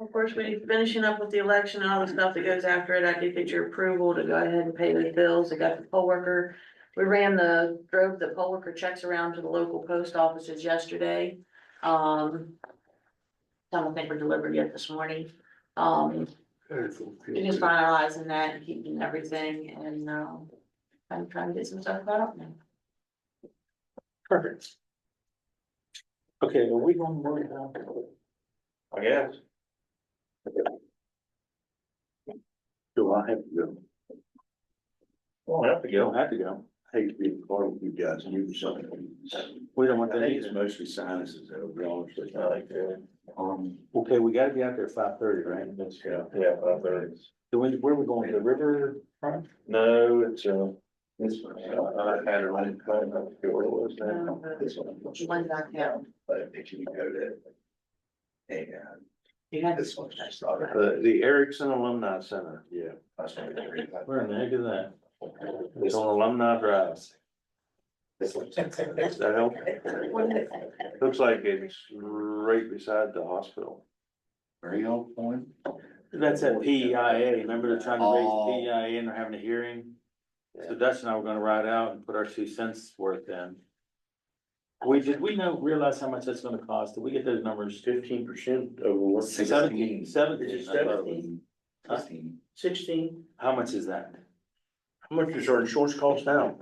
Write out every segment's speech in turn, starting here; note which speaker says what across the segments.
Speaker 1: Of course, we finishing up with the election and all the stuff that goes after it. I did get your approval to go ahead and pay the bills. I got the poll worker. We ran the, drove the poll worker checks around to the local post offices yesterday. Um. I don't think we're delivered yet this morning. Um, we're just finalizing that and keeping everything and, um, I'm trying to get some stuff caught up now.
Speaker 2: Perfect. Okay, are we going to worry about?
Speaker 3: I guess.
Speaker 2: Do I have to go?
Speaker 3: Well, I have to
Speaker 2: You don't
Speaker 3: go.
Speaker 2: have to go.
Speaker 4: I hate to be a part of you guys, you do something.
Speaker 2: We don't
Speaker 4: I
Speaker 2: want that
Speaker 4: think it's
Speaker 2: either.
Speaker 4: mostly sinuses, though, to be honest with you.
Speaker 3: I like that.
Speaker 4: Um,
Speaker 2: Okay, we gotta be out there five thirty, right?
Speaker 3: Let's go. Yeah, five thirty.
Speaker 2: Do we, where are we going? The river? front?
Speaker 3: No, it's, uh,
Speaker 4: this
Speaker 3: uh,
Speaker 4: one,
Speaker 3: I had it on, I don't know where it was now.
Speaker 4: this one.
Speaker 1: Um, One back down.
Speaker 4: But if you go to. And uh,
Speaker 1: You had
Speaker 4: this one's just started.
Speaker 2: The, the Erickson Alumni Center. Yeah.
Speaker 4: That's what we read.
Speaker 2: Where in the heck is that? It's on Alumni Drive.
Speaker 4: This one's-
Speaker 2: Does that help? Looks like it's right beside the hospital.
Speaker 4: Very old point.
Speaker 2: That's at PEIA. Remember they're trying to raise
Speaker 4: Oh.
Speaker 2: the PEIA and they're having a hearing? So Dutch and I were gonna ride out and put our two cents worth in. We, did we know, realize how much that's gonna cost? Did we get those numbers?
Speaker 3: Fifteen percent over what?
Speaker 2: Seventeen. Seventeen. I thought it was. Huh?
Speaker 4: Sixteen.
Speaker 3: Sixteen.
Speaker 2: How much is that?
Speaker 3: How much does our insurance cost now?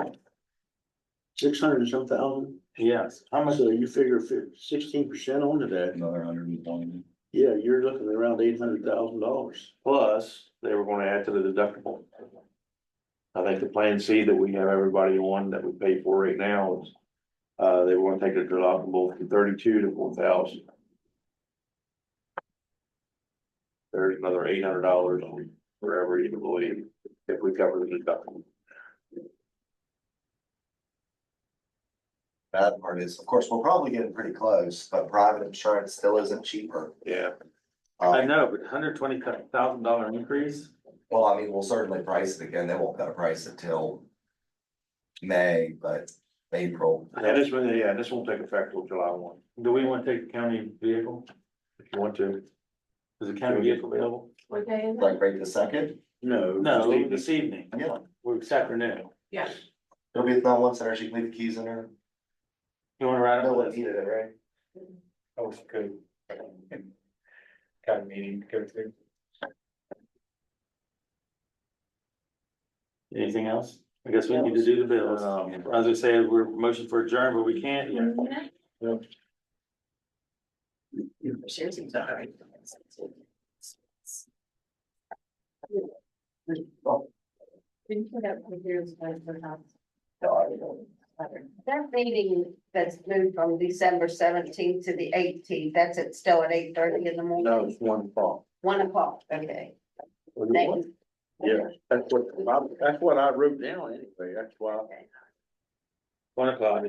Speaker 4: Six hundred and some thousand,
Speaker 2: Yes, how much?
Speaker 4: you figure sixteen percent onto that. Another hundred and twenty. Yeah, you're looking around eight hundred thousand dollars.
Speaker 2: Plus, they were gonna add to the deductible. I think the plan C that we have everybody on that we pay for right now is, uh, they were gonna take the deductible from thirty-two to four thousand. There's another eight hundred dollars for every employee if we cover the deductible.
Speaker 5: bad part is, of course, we're probably getting pretty close, but private insurance still isn't cheaper.
Speaker 2: Yeah.
Speaker 5: Um,
Speaker 2: I know, but hundred twenty thousand dollar increase,
Speaker 5: Well, I mean, we'll certainly price it again. They won't cut a price until May, but April.
Speaker 2: yeah, this, one- yeah, this won't take effect till July one. Do we wanna take the county vehicle? If you want to. Is the county vehicle available?
Speaker 1: What day is it?
Speaker 5: Like right this second,
Speaker 4: No.
Speaker 2: No,
Speaker 4: Steve,
Speaker 2: this evening,
Speaker 5: yeah,
Speaker 2: or this afternoon.
Speaker 1: Yeah.
Speaker 5: it'll be at the one center. She can leave the keys in her.
Speaker 2: You wanna ride
Speaker 5: No
Speaker 2: up
Speaker 5: one
Speaker 2: with us?
Speaker 5: needed it, right?
Speaker 3: Oh, good. Got a meeting to go to.
Speaker 2: Anything else? I guess we need to do the bills. Um, as I was gonna say, we're motion for adjourn, but we can't yet.
Speaker 1: Seriously, sorry.
Speaker 6: That meeting that's moved from December seventeenth to the eighteenth, that's at still at eight thirty in the
Speaker 3: No,
Speaker 6: morning,
Speaker 3: it's one o'clock.
Speaker 6: one o'clock, okay.
Speaker 3: Yeah, that's what, I- that's what I wrote down anyway, that's why,
Speaker 2: One o'clock.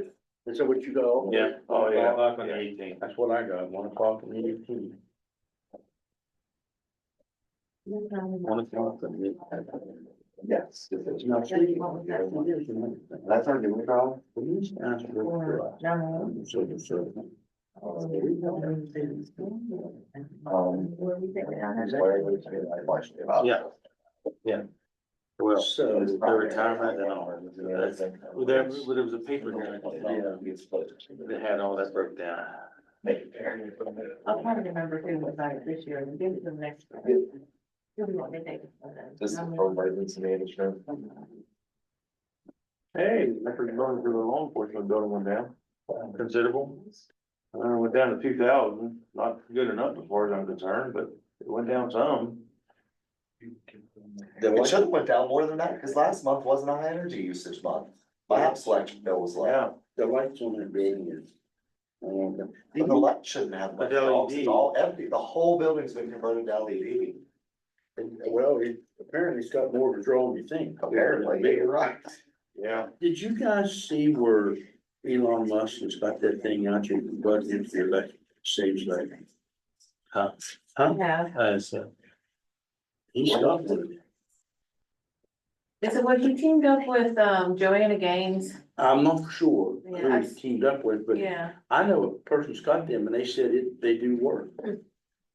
Speaker 3: is that what you go?
Speaker 2: Yeah.
Speaker 3: Oh,
Speaker 2: One
Speaker 3: yeah,
Speaker 2: o'clock on the eighteenth.
Speaker 3: that's what I got, one o'clock in the evening.
Speaker 2: One o'clock on the eighteenth.
Speaker 4: Yes. if it's not
Speaker 6: Yeah, you
Speaker 4: cheap,
Speaker 6: want
Speaker 4: you don't want it.
Speaker 5: That's our new problem.
Speaker 4: We used to ask for it. So, so.
Speaker 5: Um, where we should be, like, watching it about.
Speaker 2: Yeah. Well,
Speaker 4: So.
Speaker 2: their retirement and all. That's- well, there, well, there was a paper here
Speaker 4: Yeah.
Speaker 2: that had all that broke down.
Speaker 5: Make it fair.
Speaker 1: I'll try to remember who was on it this year and give it to the next. person. Who do you want me to take it from then?
Speaker 5: This is for emergency management.
Speaker 2: Hey, record going for the law enforcement building went down, considerable. Uh, went down to two thousand, not good enough as far as I'm concerned, but it went down some.
Speaker 5: It should have went down more than that, because last month wasn't a high energy usage month. My house electric bill was low.
Speaker 2: Yeah.
Speaker 4: The lights on that building is. um,
Speaker 5: The light shouldn't have,
Speaker 2: But
Speaker 5: much dogs.
Speaker 2: LED.
Speaker 5: it's all empty, the whole building's been converted to E LED,
Speaker 4: and, uh, Well, it apparently it's got more control than you think.
Speaker 5: apparently, you're right.
Speaker 2: Yeah.
Speaker 4: Did you guys see where Elon Musk has got that thing out there, but if the election seems like
Speaker 2: Huh?
Speaker 1: Yeah.
Speaker 2: Uh, so.
Speaker 4: he's got one.
Speaker 1: Is it what he teamed up with, um, Joanna Gaines?
Speaker 4: I'm not sure who
Speaker 1: Yeah, I-
Speaker 4: he's teamed up with, but
Speaker 1: Yeah.
Speaker 4: I know a person's got them and they said it, they do work.